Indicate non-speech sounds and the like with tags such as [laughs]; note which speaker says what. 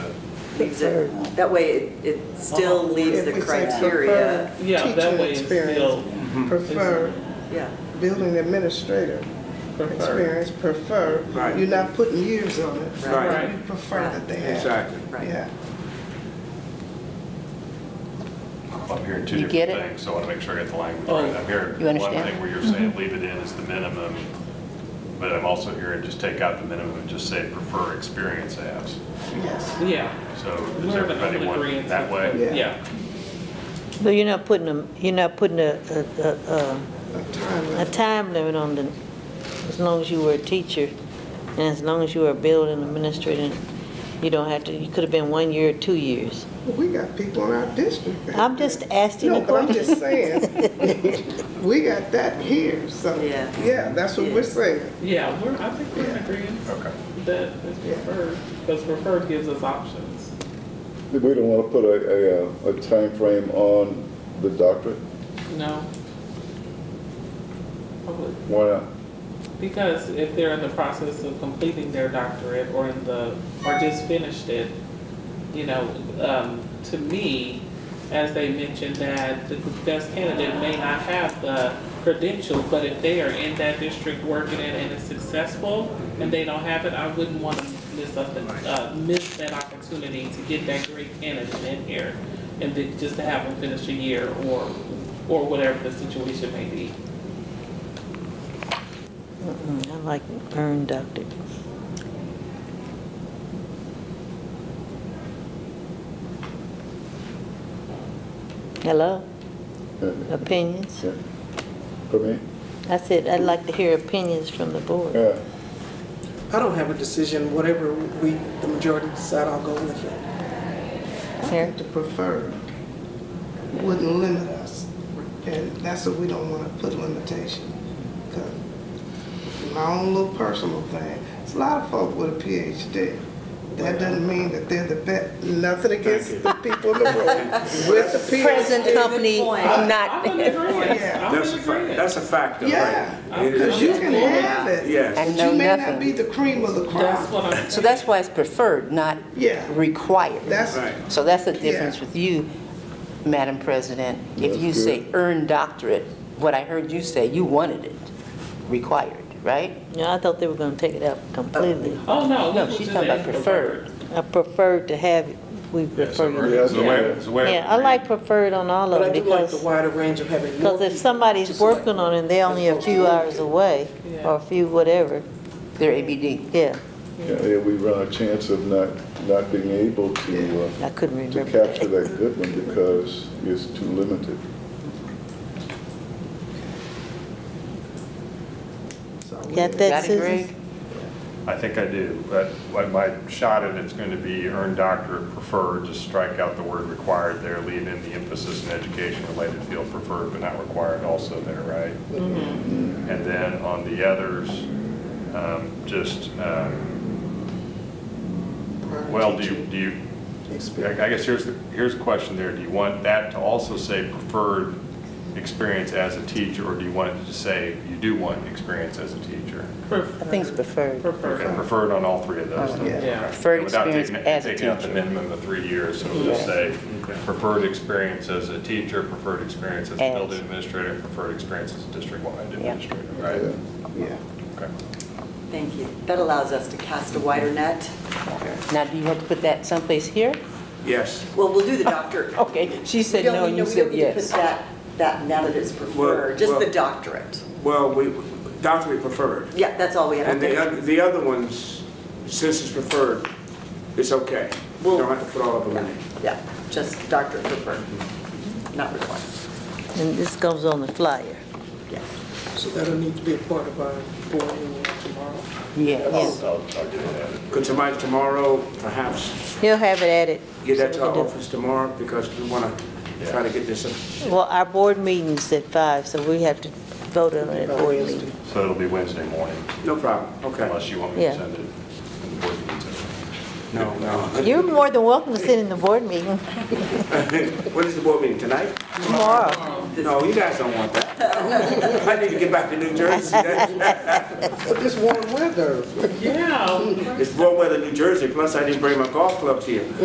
Speaker 1: leaves it, that way it, it still leaves the
Speaker 2: If we say
Speaker 1: criteria.
Speaker 2: preferred
Speaker 3: Yeah, that
Speaker 2: teacher
Speaker 3: way it's
Speaker 2: experience,
Speaker 3: still-
Speaker 2: Prefer
Speaker 1: Yeah,
Speaker 2: building administrator
Speaker 3: Prefer.
Speaker 2: experience, prefer.
Speaker 4: Right.
Speaker 2: You're not putting years on it.
Speaker 1: Right.
Speaker 2: but
Speaker 3: Right.
Speaker 2: You prefer that they have.
Speaker 4: Exactly.
Speaker 1: Right.
Speaker 2: Yeah.
Speaker 5: I'm hearing two
Speaker 6: You
Speaker 5: different
Speaker 6: get it?
Speaker 5: things, so I want to make sure I get the language
Speaker 3: Oh.
Speaker 5: right. I'm hearing
Speaker 6: You
Speaker 5: one
Speaker 6: understand? Mm-hmm.
Speaker 5: thing where you're saying leave it in as the minimum, but I'm also hearing just take out the minimum and just say prefer experience as.
Speaker 2: Yes.
Speaker 3: Yeah.
Speaker 5: So does
Speaker 3: We're in
Speaker 5: everybody
Speaker 3: full
Speaker 5: want
Speaker 3: agreeance
Speaker 5: that
Speaker 3: with-
Speaker 5: way?
Speaker 2: Yeah.
Speaker 3: Yeah,
Speaker 7: But you're not putting a, you're not putting a, a, a, a-
Speaker 2: A time
Speaker 7: a
Speaker 2: limit.
Speaker 7: time limit on the, as long as you were a teacher, and as long as you were a building administrator, you don't have to, you could have been one year or two years.
Speaker 2: Well, We got people in our district. that-
Speaker 7: I'm just asking
Speaker 2: No,
Speaker 7: a
Speaker 2: but I'm just
Speaker 7: question.
Speaker 2: saying, we got that here, so,
Speaker 1: Yeah.
Speaker 2: yeah, that's what we're saying.
Speaker 3: yeah, we're, I think we're in agreement
Speaker 5: Okay.
Speaker 3: that it's
Speaker 2: Yeah.
Speaker 3: preferred, because preferred gives us options.
Speaker 8: We don't want to put a, a, uh, a timeframe on the doctorate.
Speaker 3: No? Probably.
Speaker 8: Why not?
Speaker 3: Because if they're in the process of completing their doctorate or in the, or just finished it, you know, um, to me, as they mentioned that the best candidate may not have the credentials, but if they are in that district working it and it's successful and they don't have it, I wouldn't want to miss up, the- uh, miss that opportunity to get that great candidate in here and then just to have them finish a year or, or whatever the situation may be.
Speaker 7: Mm, I like earned doctorate. Hello?
Speaker 8: Yeah,
Speaker 7: Opinions?
Speaker 8: yeah. For me?
Speaker 7: I said, I'd like to hear opinions from the board.
Speaker 8: Yeah.
Speaker 9: I don't have a decision, whatever we, the majority decide, I'll go with it.
Speaker 7: Here.
Speaker 2: The preferred wouldn't limit us, and that's what we don't want to put limitation. 'Cause My own little personal thing, it's a lot of folk with a PhD. That doesn't mean that they're the best, nothing against the people in the room
Speaker 5: [laughs]
Speaker 2: with the PhD.
Speaker 6: Present company,
Speaker 1: Good point.
Speaker 6: not,
Speaker 3: I'm in agreement.
Speaker 2: Yeah.
Speaker 3: I'm in
Speaker 4: [laughs] That's a fact,
Speaker 3: agreement.
Speaker 4: that's a factor, right?
Speaker 2: Yeah,
Speaker 4: It is-
Speaker 2: because you can have it.
Speaker 4: Yes.
Speaker 6: And
Speaker 2: But
Speaker 6: know
Speaker 2: you may
Speaker 6: nothing.
Speaker 2: not be the cream of the crop.
Speaker 3: That's what I'm.
Speaker 6: so that's why it's preferred, not
Speaker 2: Yeah.
Speaker 6: required.
Speaker 2: That's,
Speaker 4: Right.
Speaker 6: So that's the difference with you, Madam President. If you
Speaker 8: That's
Speaker 6: say
Speaker 8: good.
Speaker 6: earned doctorate, what I heard you say, you wanted it, required, right?
Speaker 7: Yeah, I thought they were gonna take it out completely.
Speaker 3: Oh, no.
Speaker 6: No,
Speaker 3: we
Speaker 6: she's
Speaker 3: just
Speaker 6: talking about
Speaker 3: added the
Speaker 6: preferred.
Speaker 3: word.
Speaker 7: I preferred to have, it. we
Speaker 5: Yeah, so
Speaker 7: prefer.
Speaker 5: we're-
Speaker 8: Yeah.
Speaker 5: so we're- so we're-
Speaker 7: Yeah, I like preferred on all of
Speaker 9: But I
Speaker 7: them
Speaker 9: do like the
Speaker 7: because,
Speaker 9: wider range of having more.
Speaker 7: because if
Speaker 9: people to
Speaker 7: somebody's
Speaker 9: select
Speaker 7: working on it and they're only a few hours away,
Speaker 3: Yeah.
Speaker 7: or a few whatever,
Speaker 6: They're ABD.
Speaker 7: yeah,
Speaker 8: Yeah, yeah, we run a chance of not, not being able to,
Speaker 7: I
Speaker 8: uh,
Speaker 7: couldn't
Speaker 8: to
Speaker 7: remember
Speaker 8: capture
Speaker 7: that.
Speaker 8: that good one because it's too limited.
Speaker 7: Got that,
Speaker 6: Got it,
Speaker 7: Susan?
Speaker 6: Greg?
Speaker 5: I think I do, but what my shot at it's going to be earned doctorate preferred, just strike out the word required there, leave in the emphasis in education-related field preferred, but not required also there, right? And then on the others, um, just, um, well, do you, do you, I I guess here's, the here's a question there. Do you want that to also say preferred experience as a teacher, or do you want it to say you do want experience as a teacher?
Speaker 6: I think it's preferred.
Speaker 5: Okay,
Speaker 3: Preferred.
Speaker 5: Preferred on all three of those. then.
Speaker 3: Yeah.
Speaker 5: Okay.
Speaker 6: Preferred
Speaker 5: Without
Speaker 6: experience
Speaker 5: taking-
Speaker 6: as a
Speaker 5: Taking out the
Speaker 6: teacher.
Speaker 5: minimum of three years, so we'll just say preferred experience as a teacher, preferred experience as a
Speaker 6: As.
Speaker 5: building administrator, preferred experience as a district-wide administrator, right?
Speaker 8: Yeah.
Speaker 2: Yeah.
Speaker 5: Okay.
Speaker 1: thank you. That allows us to cast a wider net.
Speaker 6: Now, do you have to put that someplace here?
Speaker 4: Yes.
Speaker 1: Well, we'll do the doctor.
Speaker 6: [laughs] Okay, she said
Speaker 1: We don't
Speaker 6: no,
Speaker 1: need-
Speaker 6: and you
Speaker 1: we
Speaker 6: said
Speaker 1: don't need to put
Speaker 6: yes.
Speaker 1: that, that now that it's preferred, just the
Speaker 4: well-
Speaker 1: doctorate.
Speaker 4: Well, we, doctorate preferred.
Speaker 1: Yeah, that's all we have.
Speaker 4: And the other, the other ones, since it's preferred, it's okay. You don't have to put all of them in.
Speaker 1: Yeah, just doctorate preferred, not required.
Speaker 7: And this goes on the flyer.
Speaker 1: Yes.
Speaker 9: So that'll need to be a part of our board meeting tomorrow.
Speaker 6: Yes.
Speaker 5: I'll, I'll I'll get it added.
Speaker 4: Could somebody tomorrow perhaps
Speaker 7: He'll have it added.
Speaker 4: get that to
Speaker 7: so we
Speaker 4: our
Speaker 7: can do-
Speaker 4: office tomorrow? Because we want to try to get this,
Speaker 7: Well, our board meeting's at five, so we have to vote on it at board meeting.
Speaker 5: So it'll be Wednesday morning,
Speaker 4: no problem, okay.
Speaker 5: unless you want me to
Speaker 7: Yeah.
Speaker 5: send it. in the board meeting.
Speaker 4: No, no.
Speaker 7: You're more than welcome to sit in the board meeting
Speaker 4: When is the board meeting, tonight?
Speaker 7: tomorrow.
Speaker 4: No, you guys don't want that. I need to get back to New Jersey.
Speaker 2: But this warm weather,
Speaker 3: Yeah.
Speaker 4: It's warm weather in New Jersey, plus I didn't bring my golf clubs here.